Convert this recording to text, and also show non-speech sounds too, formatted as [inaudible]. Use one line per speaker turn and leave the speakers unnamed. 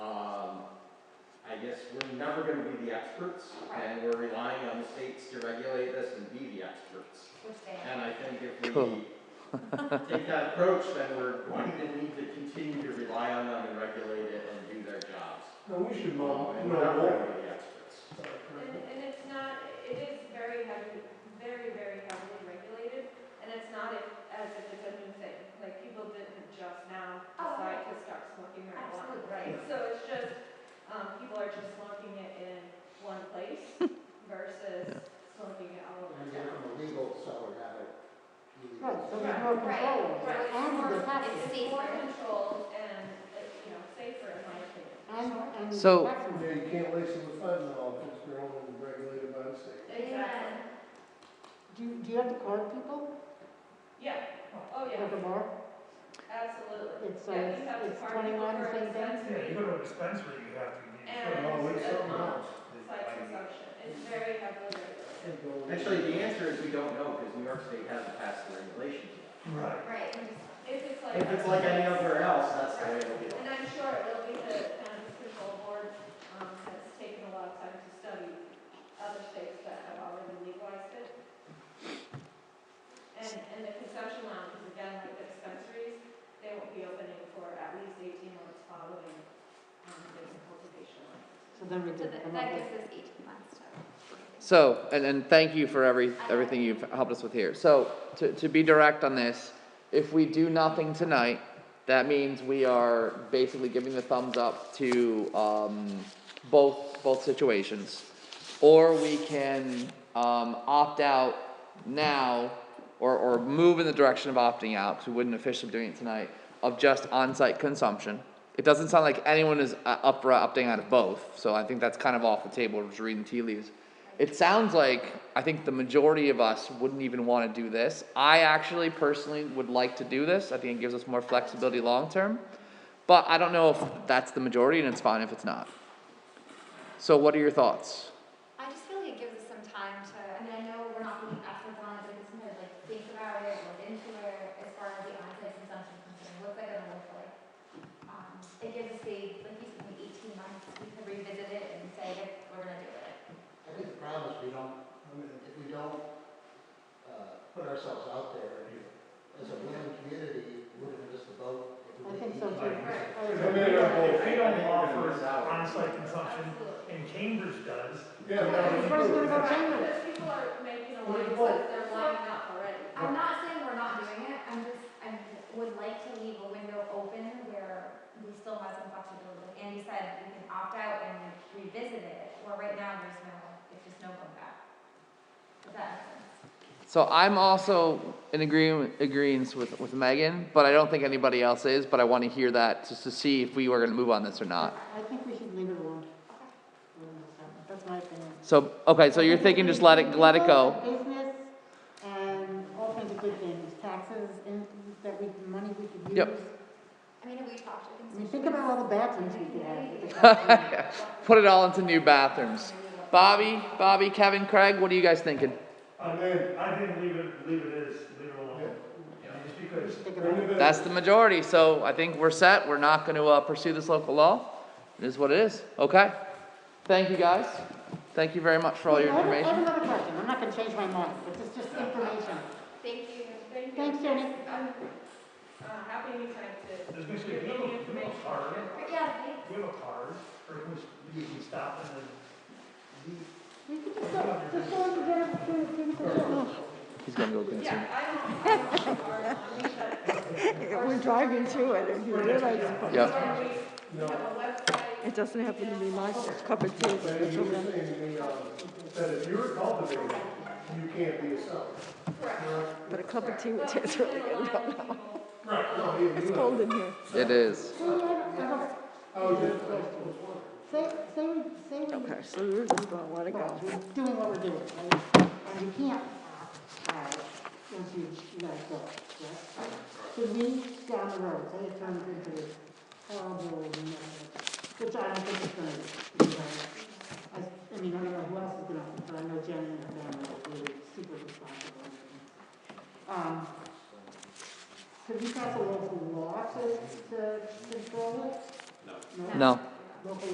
is Um, we're never gonna be the experts, and we're relying on the states to regulate this and be the experts.
We're staying.
And I think if
Cool.
we [laughs] take that approach, then we're going to need to continue to rely on them and regulate it and do their jobs.
No, we should
Um,
know,
And
know
we're never
more.
gonna be the experts.
And, and it's not, it is very heavily, very, very heavily regulated, and it's not if- as if it's a new thing. Like, people didn't just now
Oh,
decide to start smoking marijuana,
Absolutely.
right? So it's just, um, people are just smoking it in one
[laughs]
place versus smoking it all over
And
town.
from a legal seller, not a illegal.
Right, so there's
seller.
more
Right,
control.
right, it's
And
more,
the taxes.
it's
It's more
safer.
controlled and, uh, you know, safer in my opinion.
And, and.
So-
taxes.
Yeah, you can't waste the funds and all, because they're only regulated by the state.
Exactly.
Do, you- do you have to card people
Yeah, oh
at the
yeah,
bar?
absolutely.
It's, uh,
Yeah, you have to
it's
park
twenty-one,
over
same
at
thing.
dispensary.
Yeah, you go to a dispensary, you have to, you
Oh,
And,
should always
um,
know.
site consumption, it's very heavily regulated.
Can't go-
Actually, the answer is we don't know, because New York State hasn't passed the regulations yet.
Right.
Right, and just-
If it's like.
If it's like any other else, that's the way it'll be.
And I'm sure it'll be the cannabis control board, um, that's taken a lot of time to study other states that have already legalized it. And, and the consumption lounges, again, like the dispensaries, they won't be opening for at least eighteen months following, um, the cultivation license.
So then we
so
could
that
come up
that
with.
gives us eighteen months to.
So, and, and thank you for every, everything you've helped us with here. So, to, to be direct on this, if we do nothing tonight, that means we are basically giving the thumbs up to, um, both, both situations. Or we can, um, opt out now, or, or move in the direction of opting out, because we wouldn't officially doing it tonight, of just on-site consumption. It doesn't sound like anyone is uh, up, opting out of both, so I think that's kind of off the table, We're just reading tea leaves. It sounds like I think the majority of us wouldn't even want to do this. I actually personally would like to do this. I think it gives us more flexibility long term. But I don't know if that's the majority and it's fine if it's not. So what are your thoughts?
I just feel like it gives us some time to, I mean, I know we're not being asked to want to do this, but like think about it, look into it, as far as the onsite consumption is concerned, what's that gonna look like? Um, it gives us the, like you said, the eighteen months, we could revisit it and say, "Yep, we're gonna do it.
I think the problem is we don't, I mean, if we don't, uh, put ourselves out there, as a willing community, we're gonna miss the boat. if we
I think so
eat.
too. I
If
was-
they don't- if they
I think
don't
we're gonna miss
offer
out.
on-site consumption,
Absolutely.
and Cambridge does,
Yeah,
Everybody's gonna go down
Because
there.
people are making a line,
Well,
so they're lining up already.
I'm not saying we're not doing it, I'm just, I would like to leave a window open where we still have some flexibility. Like Andy said, we can opt out and revisit it, where right now there's no, it's just no going back. Does that make sense?
So I'm also in agreement agreeance with, with Megan, but I don't think anybody else is, but I want to hear that just to see if we were gonna move on this or not.
I think we should leave it alone. That's my opinion.
So okay, so you're thinking just let it let it go.
Business and all kinds of good things, taxes, in- that we, money we could use.
Yep.
I mean, we talked to
I mean,
constituents.
think about all the bad things we could have. with the tax
[laughs]
money.
Put it all into new bathrooms. Bobby, Bobby, Kevin, Craig, what are you guys thinking?
I
mean-
uh, I think leave it, leave it is, leave it alone. Just
We
because
should think about it.
That's the majority, so I think we're set. We're not gonna, uh, pursue this local law. It is what it is, okay? Thank you, guys. Thank you very much for all your
I have- I have
information.
another question, I'm not gonna change my mind, but it's just information.
Thank you.
Thank you.
Thanks, Jenny.
I'm, uh, happy anytime to
there's basically,
give
we have
any
a, we have a
information.
card,
But yeah, we-
we have a card, or we can- you can stop and then leave.
We could just go, just go and get a, get a- get a-
He's gonna go consume.
Yeah, I don't, I
[laughs]
don't.
We're driving to it, and you realize
Yep.
We have a website.
it doesn't happen to be my cup of tea.
But
it's
you were
over.
saying, the, um, that if you're cultivating, you can't be a seller.
Correct.
But a cup of tea would [laughs]
But
taste
we
really
can
good.
allow people,
No,
um,
you-
It's
you-
cold in here.
It is.
Say, I don't- I don't-
I was just, I was wondering.
say, say, we- say, we-
Okay, so you're just gonna let it
well,
go.
we're doing what we're doing, right? and you can't, uh, once you let it go, right? Should we, down the road, say it turns into this horrible, mess, which I don't think it's gonna, be, because I, I- I mean, I don't know who else is gonna, but I know Jenny and her family are really super responsible. Um, could we pass a local law to, to control it? No.
No.
Local